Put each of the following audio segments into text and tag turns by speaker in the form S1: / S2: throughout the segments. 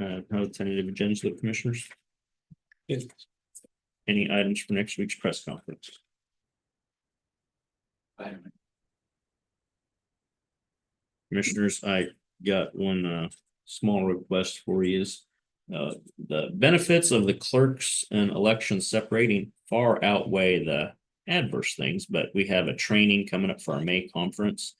S1: Uh, how tentative agendas of the commissioners?
S2: Yes.
S1: Any items for next week's press conference? Commissioners, I got one uh small request for you is. Uh, the benefits of the clerks and election separating far outweigh the adverse things, but we have a training coming up for our May conference.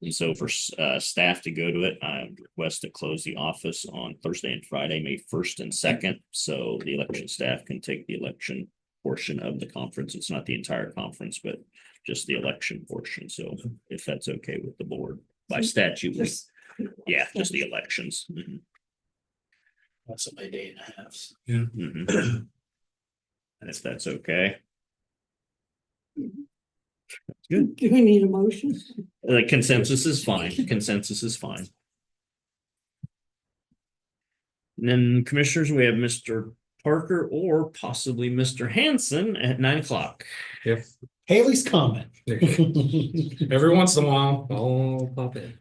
S1: And so for uh staff to go to it, I request to close the office on Thursday and Friday, May first and second. So the election staff can take the election portion of the conference. It's not the entire conference, but just the election portion. So if that's okay with the board by statute, we-
S3: Just-
S1: yeah, just the elections. Mhm,
S2: That's a day and a half.
S1: mhm. And if that's okay,
S3: Do we need a motion?
S1: the consensus is fine. Consensus is fine. And then commissioners, we have Mr. Parker or possibly Mr. Hanson at nine o'clock.
S2: Haley's comment.
S4: Every once in a while, I'll pop in.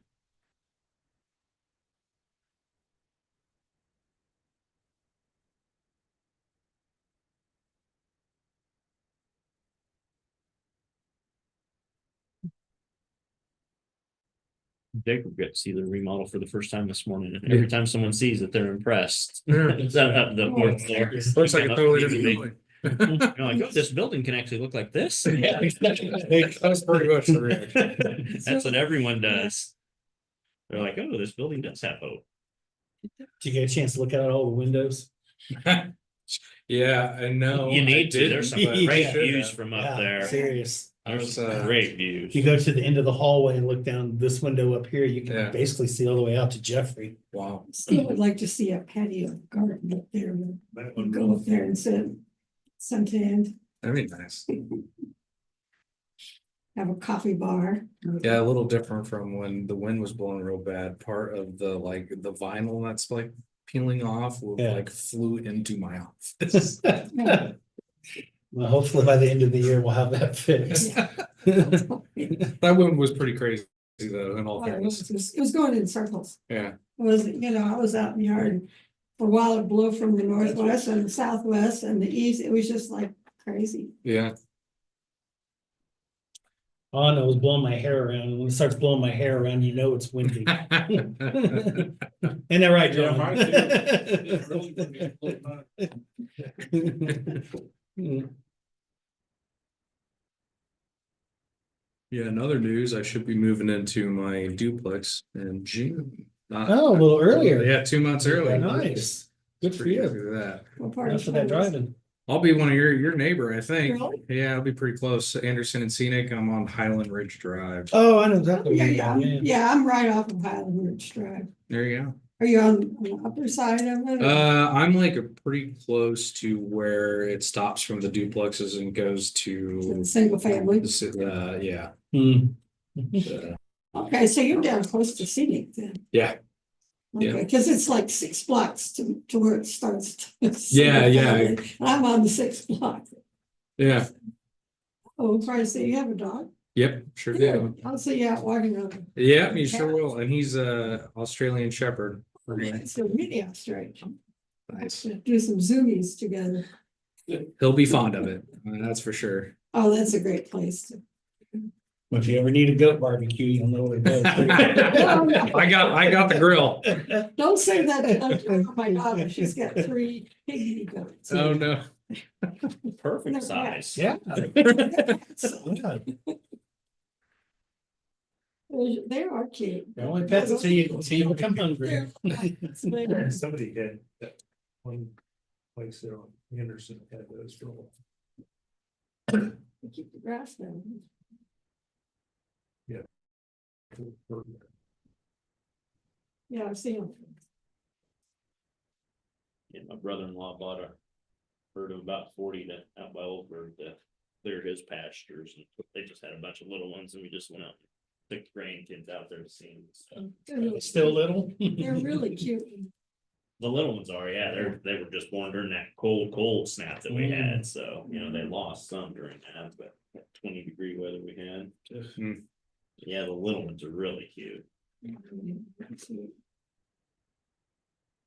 S1: Jacob got to see the remodel for the first time this morning. and Every time someone sees it, they're impressed. Is that up the board there?
S4: Looks like a totally different building.
S1: You're like, oh, this building can actually look like this.
S2: Yeah,
S4: That was pretty much the reaction.
S1: That's what everyone does. They're like, oh, this building does have hope.
S2: Did you get a chance to look out all the windows?
S4: Yeah, I know.
S1: You
S4: I
S1: need to, there's some
S4: didn't, but I
S1: great
S4: should
S1: views
S4: have.
S1: from up
S2: Yeah,
S1: there.
S2: Serious.
S1: There's
S4: There's, uh,
S1: great
S2: If you
S1: views.
S2: go to the end of the hallway and look down this window up here, you
S4: Yeah.
S2: can basically see all the way out to Jeffrey.
S4: Wow.
S3: Still would like to see a patio garden up there, and go up there and sit, suntanned,
S4: That'd be nice.
S3: have a coffee bar.
S4: Yeah, a little different from when the wind was blowing real bad. Part of the like the vinyl that's like peeling off will
S2: Yeah.
S4: like flew into my office.
S2: Well, hopefully by the end of the year, we'll have that fixed. Oh,
S4: That wind was pretty crazy though, in all
S3: Well, Oh, It was
S4: fairness.
S3: just- it was going in circles.
S4: Yeah.
S3: It Was, you know, I was out in the yard and for a while it blew from the northwest and southwest and the east. It was just like crazy.
S4: Yeah.
S2: Oh, no, it was blowing my hair around. When it starts blowing my hair around, you know it's windy. Ain't that right,
S4: Yeah,
S2: John?
S4: right, It really didn't blow Yeah, in other news, I should be moving into my duplex in June. Not-
S2: Oh, a little earlier.
S4: Yeah, two months early.
S2: Nice. Good for
S4: Pretty happy
S2: you.
S4: with that.
S3: What part of
S2: Enough of that
S3: Columbus?
S2: driving.
S4: I'll be one of your, your neighbor, I think.
S3: Really?
S4: Yeah, I'll be pretty close. Anderson and Scenic, I'm on Highland Ridge Drive.
S2: Oh, I know exactly.
S3: Yeah,
S2: where
S3: yeah,
S2: you're
S3: I'm-
S2: going.
S3: yeah, I'm right off of Highland Ridge Drive.
S4: There you
S3: Are you on on the upper side of it?
S4: go.
S3: or-
S4: Uh, I'm like a pretty close to where it stops from the duplexes and goes to.
S3: Single family.
S4: Uh, yeah.
S2: Hmm.
S4: uh,
S3: Okay, so you're down close to scenic then.
S4: Yeah. Yeah.
S3: Okay, cause it's like six blocks to, to where it starts. to-
S4: Yeah, yeah.
S3: And I'm on the sixth block.
S4: Yeah,
S3: Oh, Christ, so you have a dog?
S4: yep, sure do.
S3: I'll see you out walking on.
S4: Yeah, you sure will. And he's a Australian Shepherd. Okay.
S3: So really, I'm straight.
S4: Nice.
S3: Do some zoomies together.
S4: He'll be fond of it. uh, That's for sure.
S3: Oh, that's a great place. to-
S2: If you ever need a goat barbecue, you'll know where to
S4: I got, I got the grill.
S2: go.
S3: Don't say that. to Oh, My daughter, she's got three pygmy goats.
S4: Oh, no.
S1: Perfect
S3: Look at
S1: size.
S2: Yeah.
S3: So
S2: Yeah.
S3: They are cute.
S2: They're only pets until you, until you become hungry.
S3: They're-
S5: Somebody did that one place there on Anderson had those for a while.
S3: We Keep the grass down. Yeah, I've seen them.
S1: Yeah, my brother-in-law bought a herd of about forty that out by Oldford to clear his pastures. and They just had a bunch of little ones and we just went out. and Took the grandkids out there to see them. So
S3: They're really-
S2: Still little?
S3: They're really cute.
S1: The little ones are, yeah, they're, they were just born during that cold, cold snap that we had. So, you know, they lost some during that, but that twenty degree weather we had.
S4: Hmm.
S1: Yeah, the little ones are really cute.
S3: Absolutely.